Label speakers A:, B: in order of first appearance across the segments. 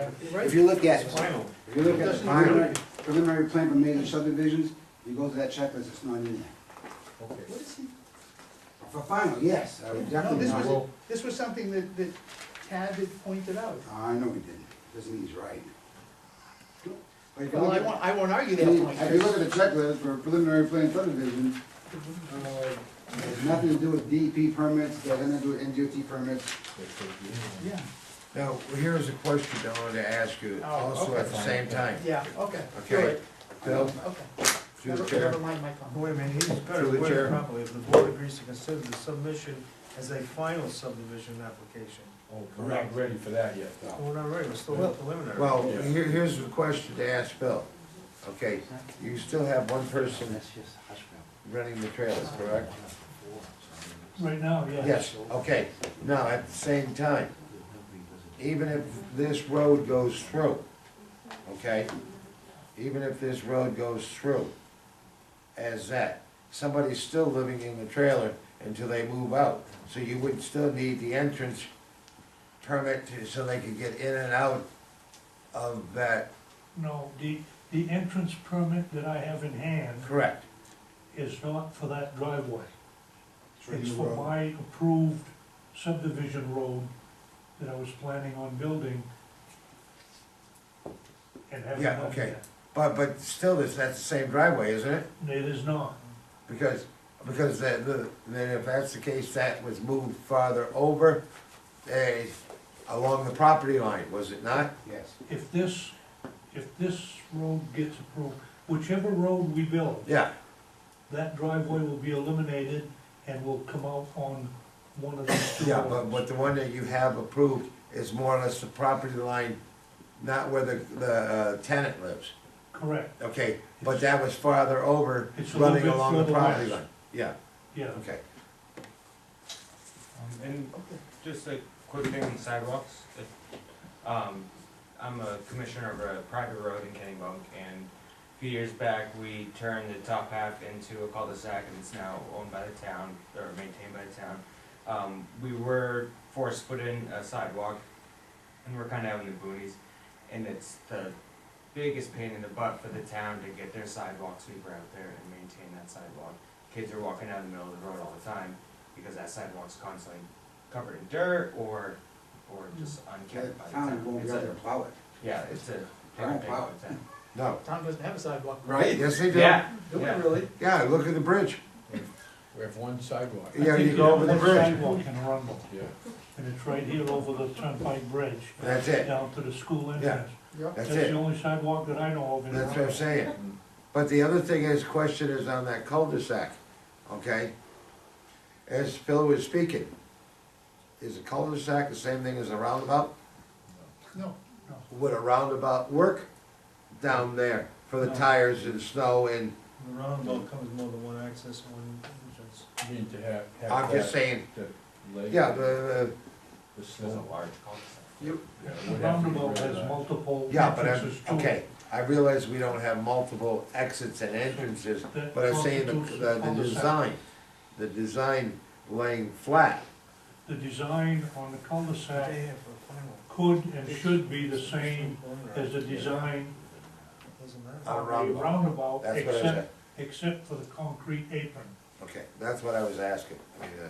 A: happen. If you look at, if
B: Final.
C: If you look at the preliminary, preliminary plan for major subdivisions, you go to that checklist, it's not in there.
D: What is he,
C: For final, yes, I would
D: no,
C: definitely
D: this
C: not.
D: was, this was something that, that Tad had pointed out.
C: "Ah, I know he didn't, doesn't mean he's right. But if you
D: Well,
C: look
D: I
C: at-
D: won't, I won't argue
C: I
D: that
C: mean,
D: point.
C: If you look at the checklist for preliminary plan subdivision, uh, it has nothing to do with DEP permits, it has nothing to do with NGOT permits.
D: Yeah,
E: Now, here's a question I wanted to ask you
D: Oh,
E: also at the
B: okay.
E: same time.
D: yeah, okay.
E: Okay.
D: You're right.
E: Bill,
D: Okay.
E: through the
D: Never,
E: chair.
D: never mind my comment.
F: Wait a minute, he's got
E: Through
F: it
E: the chair.
F: worded properly. If the board agrees to consider the submission as a final subdivision application.
B: Oh, We're not ready for that yet, though.
F: Well, We're not ready, we're still
E: Well-
F: preliminary.
E: Well, here, here's the question to ask Bill. Okay, you still have one person
A: That's just hush mouth.
E: running the trailer, correct?
G: Right now, yeah.
E: Yes, okay. Now, at the same time, even if this road goes through, okay? Even if this road goes through as that, somebody's still living in the trailer until they move out. So you would still need the entrance permit to- so they could get in and out of that,
G: No, the, the entrance permit that I have in hand
E: correct?
G: is not for that driveway.
C: for
G: It's
C: the
G: for
C: road.
G: my approved subdivision road that I was planning on building. And having
E: Yeah,
G: done
E: okay.
G: yet.
E: But, but still, that's, that's the same driveway, isn't it?
G: It is not.
E: Because, because that, the- then if that's the case, that was moved farther over, eh, along the property line, was it not?
C: Yes.
G: If this, if this road gets approved, whichever road we build,
E: Yeah,
G: that driveway will be eliminated and will come out on one of these two roads.
E: yeah, but, but the one that you have approved is more or less the property line, not where the, the uh, tenant lives.
G: Correct,
E: Okay, but that was farther over,
G: It's a little
E: running
G: bit
E: along the
G: further
E: property
G: west.
E: line. Yeah,
G: yeah.
E: okay.
H: Um, And just a quick thing on sidewalks. If, Um, I'm a commissioner of a private road in Kennebunk, and a few years back, we turned the top half into a cul-de-sac, and it's now owned by the town, or maintained by the town. Um, we were forced to put in a sidewalk, and we're kinda out in the boonies, and it's the biggest pain in the butt for the town to get their sidewalk sweeper out there and maintain that sidewalk. Kids are walking down the middle of the road all the time, because that sidewalk's constantly covered in dirt or, or just
C: The
H: unkept by the
C: town
H: town.
C: won't be
H: It's a-
C: out there to plow it.
H: Yeah, it's a
C: Wow.
H: big thing all the time.
E: No,
D: Tom doesn't have a sidewalk.
C: Right.
E: yes, they do.
H: Yeah,
D: Do we
H: yeah.
D: really?
E: Yeah, look at the bridge.
B: We have one sidewalk.
E: Yeah, you go over the bridge.
G: Sidewalk in Arundel,
B: Yeah.
G: and it's right here over the Turnpike Bridge,
E: That's it,
G: down to the school entrance.
E: that's
G: That's
E: it.
G: the only sidewalk that I know of in
E: That's what I'm
G: Arundel.
E: saying. But the other thing is, question is on that cul-de-sac, okay? As Phil was speaking, is a cul-de-sac the same thing as a roundabout?
D: No.
E: Would a roundabout work down there for the
G: No.
E: tires and snow and,
F: The roundabout covers more than one access, one entrance.
B: Need to have, have.
E: I'm just
B: that-
E: saying,
B: that lake,
E: yeah, the,
B: The
H: It's a
B: snow.
H: large cul-de-sac.
B: Yeah, it
G: The
B: would have to be
G: roundabout has
B: really nice.
G: multiple
E: yeah, but I'm,
G: entrances to it.
E: okay. I realize we don't have multiple exits and entrances,
G: That
E: but I'm saying the,
G: constitutes
E: the
G: a
E: the
G: cul-de-sac.
E: design, the design laying flat,
G: The design on the cul-de-sac
F: Day here for a final.
G: could and Uh, should be the same as the
F: Yeah.
G: design Uh,
F: Doesn't matter.
E: A
G: of a
E: roundabout.
G: roundabout,
E: that's what I said.
G: except, except for the concrete apron.
E: Okay, that's what I was asking. I mean, uh,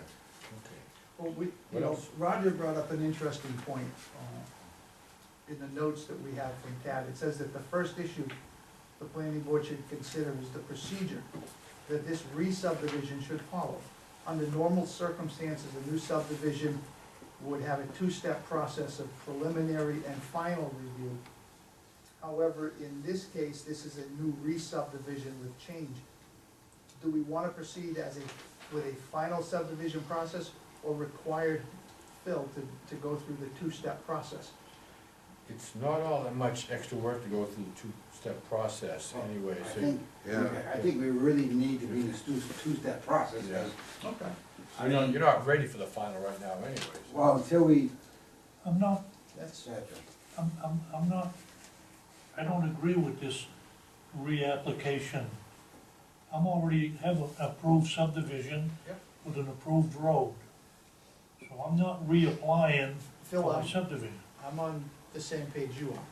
D: Well, we, you
E: What
D: know,
E: else?
D: Roger brought up an interesting point, uh, in the notes that we have from Tad. It says that the first issue the planning board should consider is the procedure that this re-subdivision should follow. Under normal circumstances, a new subdivision would have a two-step process of preliminary and final review. However, in this case, this is a new re-subdivision with change. Do we wanna proceed as a, with a final subdivision process or required Phil to, to go through the two-step process?
B: It's not all that much extra work to go through the two-step process
C: I
B: anyway, so
C: think,
E: Yeah.
C: I think we really need to be in this two, two-step process,
B: Yeah.
D: Okay.
B: you're not, you're not ready for the final right now anyways.
C: well, until we,
G: I'm not,
D: That's,
G: I'm, I'm, I'm not, I don't agree with this reapplication. I'm already have an approved subdivision
D: Yep.
G: with an approved road. So I'm not reapplying
D: Phil,
G: for my
D: I'm,
G: subdivision.
D: I'm on the same page you are.